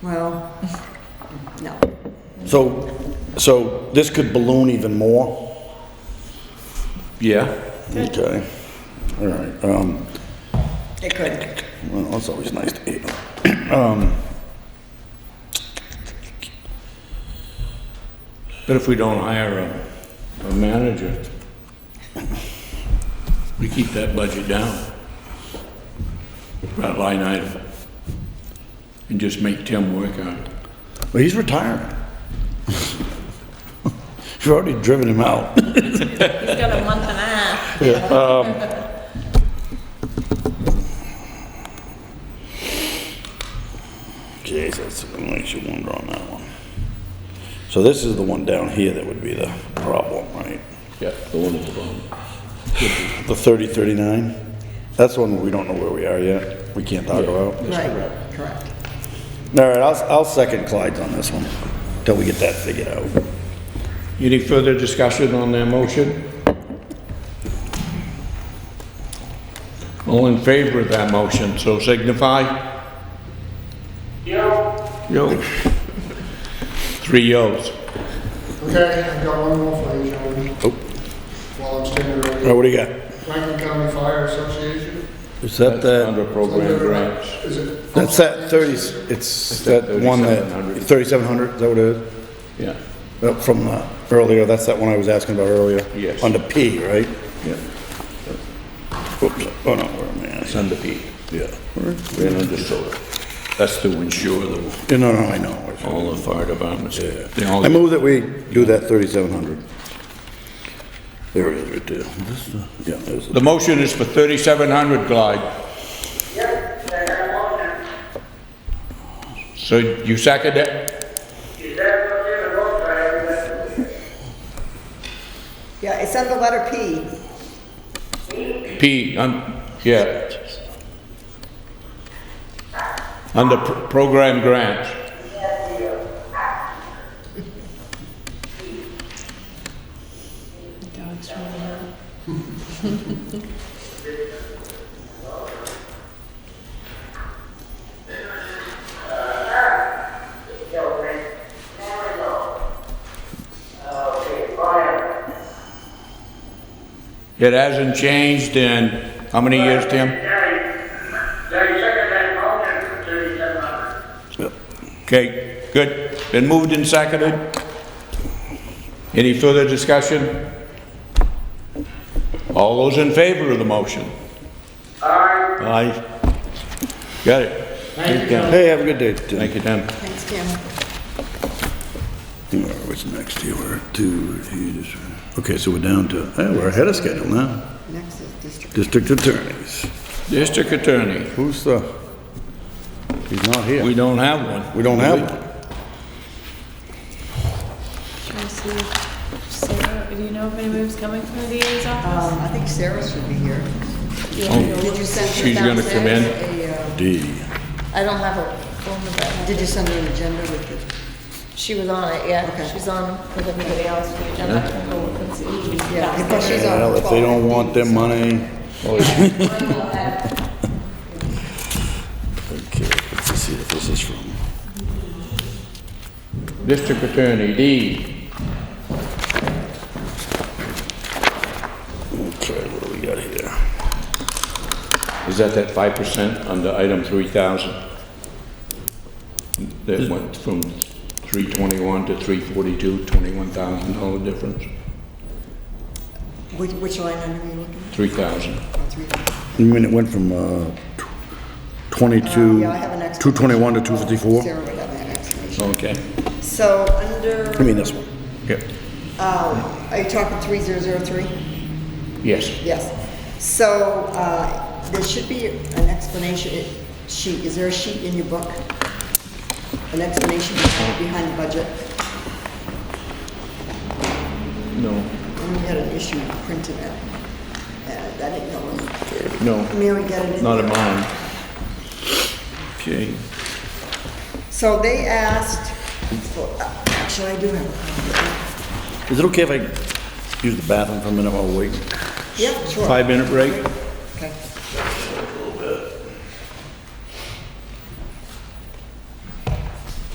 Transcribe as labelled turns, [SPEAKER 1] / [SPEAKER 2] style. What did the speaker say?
[SPEAKER 1] Well, no.
[SPEAKER 2] So, so this could balloon even more?
[SPEAKER 3] Yeah.
[SPEAKER 2] Okay, all right, um,
[SPEAKER 1] It could.
[SPEAKER 2] well, that's always nice to hear. Um,
[SPEAKER 3] But if we don't hire a, a manager, we keep that budget down. That line item. And just make Tim work on it.
[SPEAKER 2] But he's retiring. You've already driven him out.
[SPEAKER 4] He's got a month and a half.
[SPEAKER 2] Jesus, it makes you wonder on that one. So this is the one down here that would be the problem, right?
[SPEAKER 3] Yeah, the one at the bottom.
[SPEAKER 2] The thirty thirty-nine? That's one we don't know where we are yet, we can't talk about.
[SPEAKER 1] Right, correct.
[SPEAKER 2] All right, I'll, I'll second Clyde's on this one, till we get that figured out.
[SPEAKER 3] Any further discussion on that motion? All in favor of that motion, so signify? Yo. Yo. Three yos.
[SPEAKER 5] Okay, I've got one more for you, gentlemen,
[SPEAKER 2] Oh,
[SPEAKER 5] while I'm standing right
[SPEAKER 2] oh,
[SPEAKER 5] here.
[SPEAKER 2] what do you got?
[SPEAKER 5] Franklin County Fire Association.
[SPEAKER 2] Is that the?
[SPEAKER 3] Under program grants.
[SPEAKER 5] Is it?
[SPEAKER 2] That's that thirty, it's that one that,
[SPEAKER 3] 3700.
[SPEAKER 2] thirty-seven hundred, is that what it is?
[SPEAKER 3] Yeah,
[SPEAKER 2] Uh, From uh, earlier, that's that one I was asking about earlier?
[SPEAKER 3] Yes.
[SPEAKER 2] Under P, right?
[SPEAKER 3] yeah,
[SPEAKER 2] Oops, oh no, where am I at?
[SPEAKER 3] it's under P.
[SPEAKER 2] Yeah.
[SPEAKER 3] Ran under solar. That's to ensure the,
[SPEAKER 2] Yeah, No, no, I know.
[SPEAKER 3] all the fire departments. they all-
[SPEAKER 2] I move that we do that thirty-seven hundred. There it is, right there. This, uh, Yeah, there's
[SPEAKER 3] The
[SPEAKER 2] the,
[SPEAKER 3] motion is for thirty-seven hundred glide.
[SPEAKER 6] Yep, they have one,
[SPEAKER 3] So you second it?
[SPEAKER 6] is that what you're looking at, that's
[SPEAKER 1] Yeah, it's under letter P.
[SPEAKER 3] P, um, yeah. Under pr- program grants.
[SPEAKER 4] Dog's running out.
[SPEAKER 3] It hasn't changed in, how many years, Tim?
[SPEAKER 6] They second that motion, thirty-seven hundred.
[SPEAKER 3] Okay, good. Been moved and seconded? Any further discussion? All those in favor of the motion?
[SPEAKER 6] Aye.
[SPEAKER 3] Aye. Got it. Thank you, Tim.
[SPEAKER 2] hey, have a good day. Tim.
[SPEAKER 3] Thank you, Tim.
[SPEAKER 1] Thanks, Tim.
[SPEAKER 2] All right, What's next here? We're two, three, just- okay, so we're down to, eh, we're ahead of schedule now.
[SPEAKER 1] Next is district.
[SPEAKER 2] District attorneys.
[SPEAKER 3] District Attorney,
[SPEAKER 2] Who's the? He's not here.
[SPEAKER 3] we don't have one.
[SPEAKER 2] We don't have one.
[SPEAKER 4] Should I see if Sarah, do you know if anybody's coming from the DA's office?
[SPEAKER 1] Um, I think Sarah should be here.
[SPEAKER 3] Oh.
[SPEAKER 1] Did you send her
[SPEAKER 3] She's gonna come in.
[SPEAKER 1] downstairs a, uh,
[SPEAKER 2] D.
[SPEAKER 4] I don't have a phone number.
[SPEAKER 1] Did you send her an agenda with the?
[SPEAKER 4] She was on it, yeah.
[SPEAKER 1] Okay.
[SPEAKER 4] She's on with everybody else. We don't have to go and see.
[SPEAKER 1] Yeah, I think she's on
[SPEAKER 2] Well, if they don't want their money. Okay, let's just see if this is from.
[SPEAKER 3] District Attorney, D.
[SPEAKER 2] Okay, what do we got here?
[SPEAKER 3] Is that that 5% under item 3,000? That went from 321 to 342, $21,000 difference?
[SPEAKER 1] Which, which line item are you looking
[SPEAKER 3] 3,000.
[SPEAKER 1] at? Oh, three.
[SPEAKER 2] I mean, it went from uh, tw- 22,
[SPEAKER 1] Uh, yeah, I have an explanation.
[SPEAKER 2] 221 to 254.
[SPEAKER 1] Sarah would have that explanation.
[SPEAKER 3] Okay.
[SPEAKER 1] So under,
[SPEAKER 2] I mean, this one.
[SPEAKER 3] Yep.
[SPEAKER 1] uh, are you talking three zero zero three?
[SPEAKER 3] Yes.
[SPEAKER 1] Yes. So, uh, there should be an explanation sheet. Is there a sheet in your book? An explanation behind the budget?
[SPEAKER 3] No,
[SPEAKER 1] And we had an issue printing it. Uh, I didn't know.
[SPEAKER 3] no,
[SPEAKER 1] Mary got it in
[SPEAKER 3] not
[SPEAKER 1] there.
[SPEAKER 3] in mine. Okay.
[SPEAKER 1] So they asked, for- uh, actually, I do have a copy.
[SPEAKER 2] Is it okay if I use the bathroom for a minute while we wait?
[SPEAKER 1] Yeah, sure.
[SPEAKER 3] Five-minute break?